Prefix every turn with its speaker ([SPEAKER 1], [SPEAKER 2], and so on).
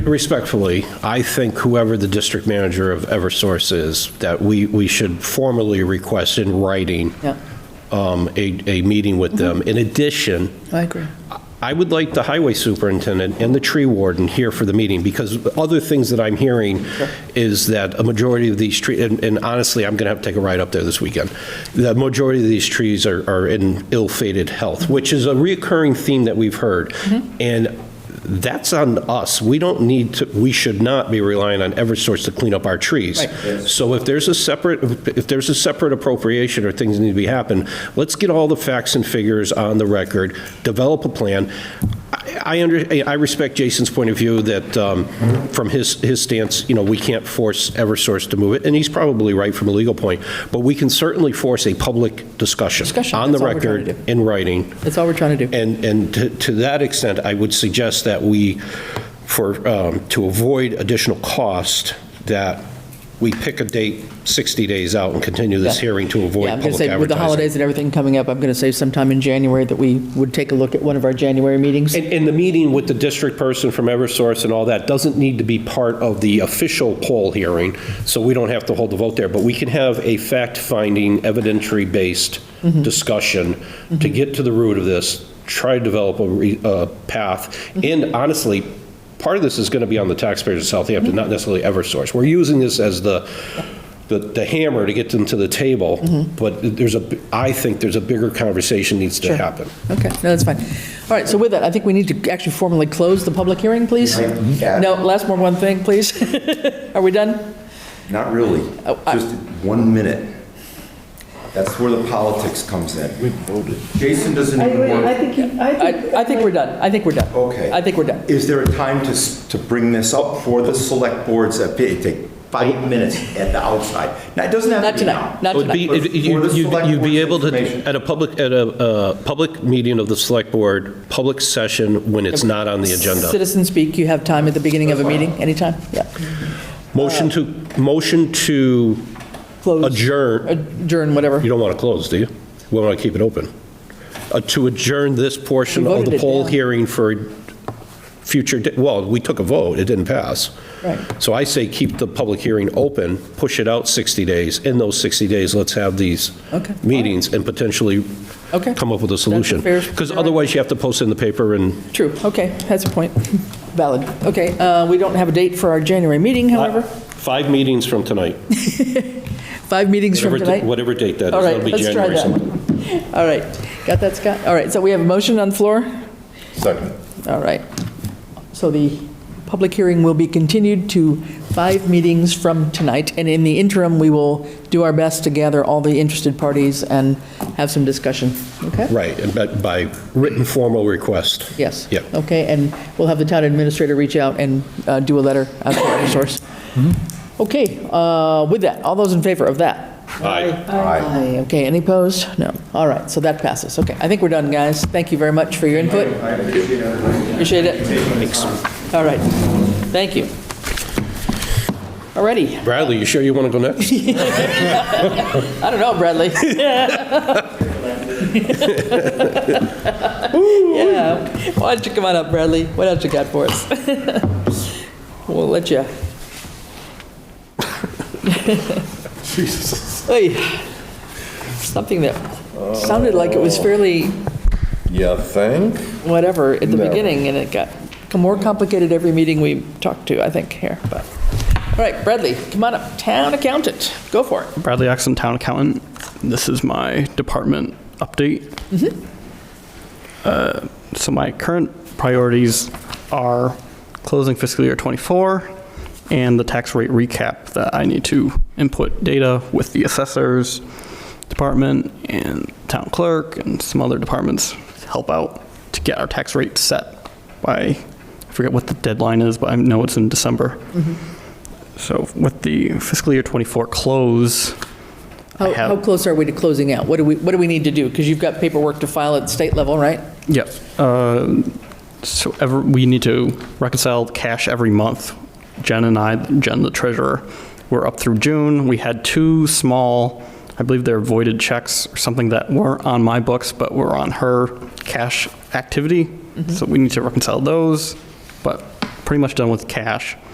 [SPEAKER 1] Respectfully, I think whoever the district manager of Eversource is, that we, we should formally request in writing
[SPEAKER 2] Yeah.
[SPEAKER 1] um, a, a meeting with them. In addition,
[SPEAKER 2] I agree.
[SPEAKER 1] I would like the highway superintendent and the tree warden here for the meeting, because other things that I'm hearing is that a majority of these trees, and honestly, I'm going to have to take a ride up there this weekend, the majority of these trees are are in ill-fated health, which is a reoccurring theme that we've heard. And that's on us. We don't need to, we should not be relying on Eversource to clean up our trees.
[SPEAKER 2] Right.
[SPEAKER 1] So if there's a separate, if there's a separate appropriation or things need to be happen, let's get all the facts and figures on the record, develop a plan. I, I under, I respect Jason's point of view that, um, from his, his stance, you know, we can't force Eversource to move it, and he's probably right from a legal point, but we can certainly force a public discussion.
[SPEAKER 2] Discussion,
[SPEAKER 1] On the
[SPEAKER 2] that's all we're trying to
[SPEAKER 1] record,
[SPEAKER 2] do.
[SPEAKER 1] in writing,
[SPEAKER 2] That's all we're trying to do.
[SPEAKER 1] and, and to- to that extent, I would suggest that we, for, um, to avoid additional cost, that we pick a date 60 days out and continue this
[SPEAKER 2] Yeah.
[SPEAKER 1] hearing to avoid
[SPEAKER 2] Yeah, I'm
[SPEAKER 1] public
[SPEAKER 2] going to say,
[SPEAKER 1] advertising.
[SPEAKER 2] with the holidays and everything coming up, I'm going to say sometime in January that we would take a look at one of our January meetings.
[SPEAKER 1] And, and the meeting with the district person from Eversource and all that doesn't need to be part of the official poll hearing, so we don't have to hold the vote there, but we can have a fact-finding, evidentiary-based discussion to get to the root of this, try to develop a re- a path, and honestly, part of this is going to be on the taxpayers of Southampton, not necessarily Eversource. We're using this as the, the- the hammer to get them to the table, but there's a, b- I think there's a bigger conversation needs to happen.
[SPEAKER 2] Okay, no, that's fine. All right, so with that, I think we need to actually formally close the public hearing, please.
[SPEAKER 3] Yeah.
[SPEAKER 2] No, last more one thing, please. Are we done?
[SPEAKER 3] Not really,
[SPEAKER 2] Oh, I-
[SPEAKER 3] just one minute. That's where the politics comes in. We voted. Jason doesn't
[SPEAKER 4] I
[SPEAKER 3] even
[SPEAKER 4] agree. I
[SPEAKER 3] want,
[SPEAKER 4] think, you- I
[SPEAKER 2] I,
[SPEAKER 4] think.
[SPEAKER 2] I think we're done. I think we're done.
[SPEAKER 3] okay.
[SPEAKER 2] I think we're done.
[SPEAKER 3] Is there a time to, s- to bring this up for the select boards? that It take five minutes at the outside. Now, it doesn't have to
[SPEAKER 2] Not
[SPEAKER 3] be now.
[SPEAKER 2] tonight, not
[SPEAKER 1] It would
[SPEAKER 2] tonight.
[SPEAKER 1] be,
[SPEAKER 3] For-
[SPEAKER 1] it-
[SPEAKER 3] for
[SPEAKER 1] you-
[SPEAKER 3] the
[SPEAKER 1] you'd
[SPEAKER 3] select
[SPEAKER 1] you'd be
[SPEAKER 3] board's
[SPEAKER 1] able to,
[SPEAKER 3] information.
[SPEAKER 1] at a public, at a uh, public meeting of the select board, public session when it's not on the agenda.
[SPEAKER 2] Citizen speak, you have time at the beginning of a meeting, anytime? Yeah.
[SPEAKER 1] Motion to, motion to
[SPEAKER 2] Close,
[SPEAKER 1] adjourn,
[SPEAKER 2] adjourn, whatever.
[SPEAKER 1] you don't want to close, do you? We want to keep it open. Uh, To adjourn this portion
[SPEAKER 2] We
[SPEAKER 1] of
[SPEAKER 2] voted
[SPEAKER 1] the
[SPEAKER 2] it
[SPEAKER 1] poll
[SPEAKER 2] down.
[SPEAKER 1] hearing for future, di- well, we took a vote, it didn't pass.
[SPEAKER 2] Right.
[SPEAKER 1] So I say keep the public hearing open, push it out 60 days. In those 60 days, let's have these
[SPEAKER 2] Okay.
[SPEAKER 1] meetings and potentially
[SPEAKER 2] Okay.
[SPEAKER 1] come up with a solution.
[SPEAKER 2] fair-
[SPEAKER 1] Because otherwise, you have to post it in the paper and
[SPEAKER 2] True, okay, that's a point. Valid. Okay, uh, we don't have a date for our January meeting, however.
[SPEAKER 1] Five meetings from tonight.
[SPEAKER 2] Five meetings from
[SPEAKER 1] Whatever-
[SPEAKER 2] tonight.
[SPEAKER 1] Whatever date that is.
[SPEAKER 2] All right,
[SPEAKER 1] That'll be
[SPEAKER 2] let's try
[SPEAKER 1] January sometime.
[SPEAKER 2] that. All right, got that, Scott? All right, so we have a motion on the floor?
[SPEAKER 3] Second.
[SPEAKER 2] All right. So the public hearing will be continued to five meetings from tonight, and in the interim, we will do our best to gather all the interested parties and have some discussion, okay?
[SPEAKER 1] Right, and but by written formal request.
[SPEAKER 2] Yes.
[SPEAKER 1] Yeah.
[SPEAKER 2] Okay, and we'll have the town administrator reach out and uh, do a letter out to our source.
[SPEAKER 1] Mm-hmm.
[SPEAKER 2] Okay, uh, with that, all those in favor of that?
[SPEAKER 1] Aye.
[SPEAKER 2] Aye. Okay, any opposed? No. All right, so that passes. Okay, I think we're done, guys. Thank you very much for your input. I appreciate it. All right, thank you. All righty,
[SPEAKER 1] Bradley, you sure you want to go next?
[SPEAKER 2] I don't know, Bradley. Yeah, why don't you come on up, Bradley? What else you got for us? We'll let you. Jesus. Hey, something that sounded like it was fairly
[SPEAKER 5] You think?
[SPEAKER 2] whatever at the
[SPEAKER 5] No.
[SPEAKER 2] beginning, and it got more complicated every meeting we talked to, I think, here, but. All right, Bradley, come on up, town accountant, go for it.
[SPEAKER 6] Bradley Axon, town accountant. This is my department update. Uh, So my current priorities are closing fiscal year '24 and the tax rate recap that I need to input data with the assessors department and town clerk and some other departments to help out to get our tax rate set by, I forget what the deadline is, but I know it's in December. So with the fiscal year '24 close, I
[SPEAKER 2] How,
[SPEAKER 6] have-
[SPEAKER 2] how close are we to closing out? What do we, what do we need to do? Because you've got paperwork to file at state level, right?
[SPEAKER 6] Yep. uh, So ever, we need to reconcile cash every month. Jen and I, Jen the treasurer, were up through June. We had two small, I believe they're voided checks or something that weren't on my books, but were on her cash activity. So we need to reconcile those, but pretty much done with cash.